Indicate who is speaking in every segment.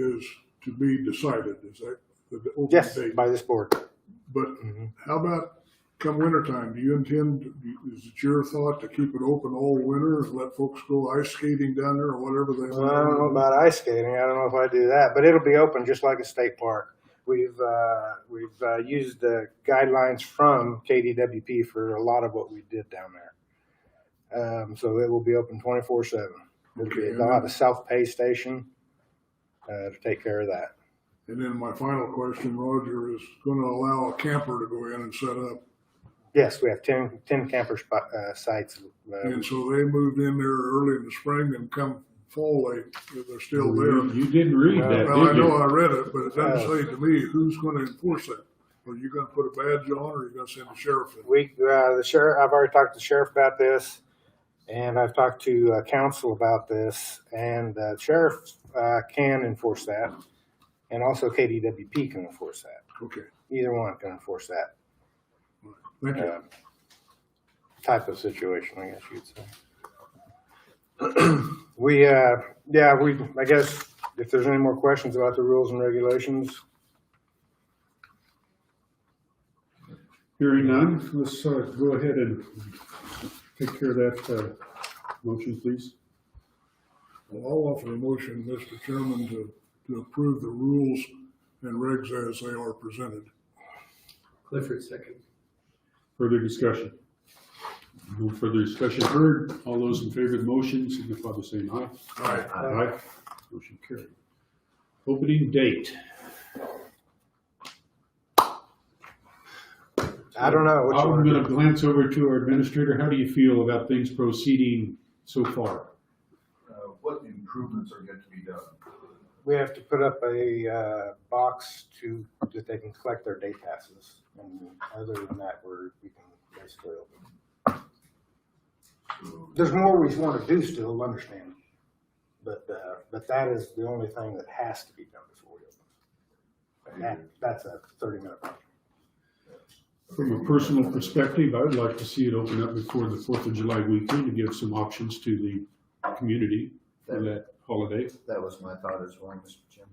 Speaker 1: to be decided, is that the open
Speaker 2: Yes,
Speaker 1: date?
Speaker 2: by this board.
Speaker 1: But
Speaker 2: Mhm.
Speaker 1: how about come wintertime, do you intend, do- is it your thought to keep it open all winter, and let folks go ice skating down there or whatever they
Speaker 2: Well, I don't know
Speaker 1: want?
Speaker 2: about ice skating. I don't know if I do that, but it'll be open just like a state park. We've uh, we've uh, used the guidelines from KDWP for a lot of what we did down there. Um, so it will be open twenty four seven.
Speaker 1: Okay,
Speaker 2: They'll have a self pay station uh, to take care of that.
Speaker 1: and then my final question, Roger, is gonna allow a camper to go in and set up,
Speaker 2: Yes, we have 10, 10 camper spot, uh, sites. Uh,
Speaker 1: and so they moved in there early in the spring and come fall, they, they're still
Speaker 2: Mm-hmm.
Speaker 1: there.
Speaker 3: You didn't read that,
Speaker 1: Well, I
Speaker 3: did
Speaker 1: know
Speaker 3: you?
Speaker 1: I read it, but it doesn't say to me who's gonna enforce that. Are you gonna put a badge on or are you gonna send the sheriff in?
Speaker 2: we uh, the sheriff. I've already talked to the sheriff about this, and I've talked to uh, council about this, and uh, sheriff uh, can enforce that, and also KDWP can enforce that.
Speaker 1: Okay,
Speaker 2: Either one can enforce that
Speaker 1: thank you.
Speaker 2: uh, type of situation, I guess you'd say. we, uh, yeah, we. I guess if there's any more questions about the rules and regulations,
Speaker 3: Hearing none, let's uh, go ahead and take care of that uh, motion, please.
Speaker 1: Well, I'll offer a motion, Mr. Chairman, to, to approve the rules and regs as they are presented.
Speaker 4: Clifford second.
Speaker 3: Further discussion? No further discussion heard. All those in favor of the motion signify by saying aye.
Speaker 1: Aye.
Speaker 3: Aye. Motion carried. Opening date.
Speaker 2: I don't know. What you
Speaker 3: I'm
Speaker 2: wanna do.
Speaker 3: gonna glance over to our administrator. How do you feel about things proceeding so far?
Speaker 5: uh, what improvements are yet to be done.
Speaker 2: We have to put up a uh, box to, that they can collect their day passes. And other than that, we're, we can basically open. There's more we want to do still, understand. But, uh, but that is the only thing that has to be done before we open. And that, that's a thirty minute. project.
Speaker 3: From a personal perspective, I would like to see it open up before the Fourth of July weekend to give some options to the community for that holiday.
Speaker 5: That was my thought as well, Mr.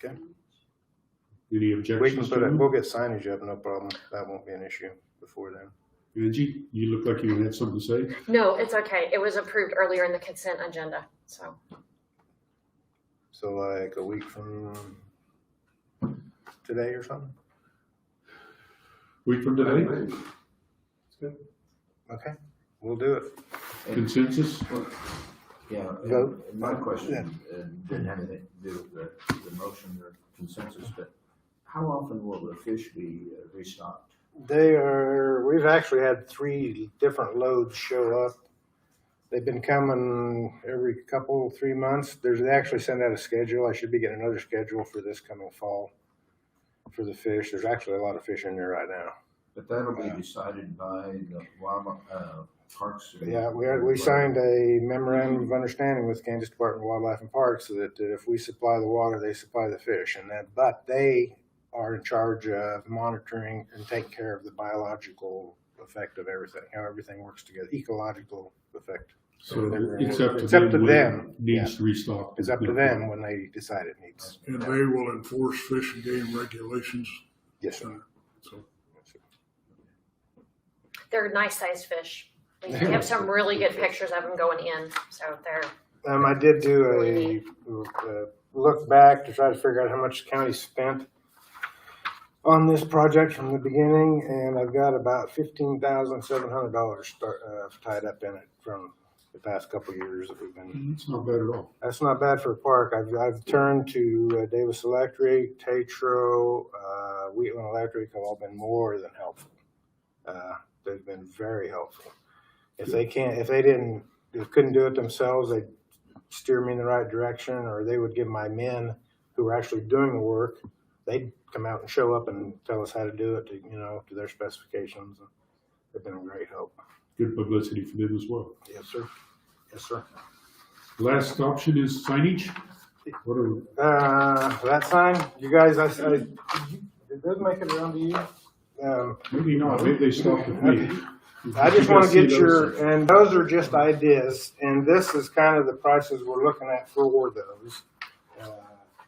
Speaker 5: Chairman.
Speaker 3: Any
Speaker 2: We can
Speaker 3: objections
Speaker 2: put it,
Speaker 3: to
Speaker 2: we'll get signage up, no problem. That won't be an issue before then.
Speaker 3: it? Angie, you look like you had something to say.
Speaker 6: No, it's okay. It was approved earlier in the consent agenda, so.
Speaker 2: So like a week from today or something?
Speaker 3: Week from today,
Speaker 2: Okay, we'll do it.
Speaker 3: consensus?
Speaker 7: Yeah,
Speaker 2: Vote.
Speaker 7: Uh, and my question, and didn't have anything to do with the, the motion or consensus, but how often will the fish be uh, restocked?
Speaker 2: They are, we've actually had three different loads show up. They've been coming every couple, three months. There's, they actually send out a schedule. I should be getting another schedule for this coming fall for the fish. There's actually a lot of fish in there right now.
Speaker 7: But that'll be decided by the Wildlife, uh, Parks. and-
Speaker 2: Yeah, we, we signed uh, a memorandum of understanding with Kansas Department of Wildlife and Parks so that if we supply the water, they supply the fish. And that, but they are in charge of monitoring and taking care of the biological effect of everything, how everything works together, ecological effect.
Speaker 3: So
Speaker 2: They're-
Speaker 3: it's up to
Speaker 2: it's up
Speaker 3: them
Speaker 2: to
Speaker 3: when it
Speaker 2: them.
Speaker 3: needs to restock.
Speaker 2: It's up to them when they decide it needs.
Speaker 1: And they will enforce fish and game regulations.
Speaker 2: Yes, sir.
Speaker 1: So,
Speaker 6: They're nice sized fish. We have some really good pictures of them going in, so they're,
Speaker 2: Um, I did do a, uh look back to try to figure out how much the county spent on this project from the beginning, and I've got about fifteen thousand seven hundred dollars start, uh, tied up in it from the past couple of years that we've been.
Speaker 3: It's not bad at all.
Speaker 2: That's not bad for a park. I've, I've turned to uh, Davis Electric, Tetro, uh, Wheatland Electric have all been more than helpful. Uh, they've been very helpful. If they can't, if they didn't, if couldn't do it themselves, they'd steer me in the right direction or they would give my men who were actually doing the work, they'd come out and show up and tell us how to do it to, you know, to their specifications. They've been a great help.
Speaker 3: Good publicity for them as well.
Speaker 2: Yes, sir. Yes, sir.
Speaker 3: Last option is signage. What are,
Speaker 2: Uh, that sign, you guys, I, I, did that make it around to you? Um,
Speaker 3: maybe not, maybe they stopped at me.
Speaker 2: I just wanna
Speaker 3: You guys
Speaker 2: get
Speaker 3: see those?
Speaker 2: your, and those Uh, are just ideas, and this is kind of the prices we're looking at for those.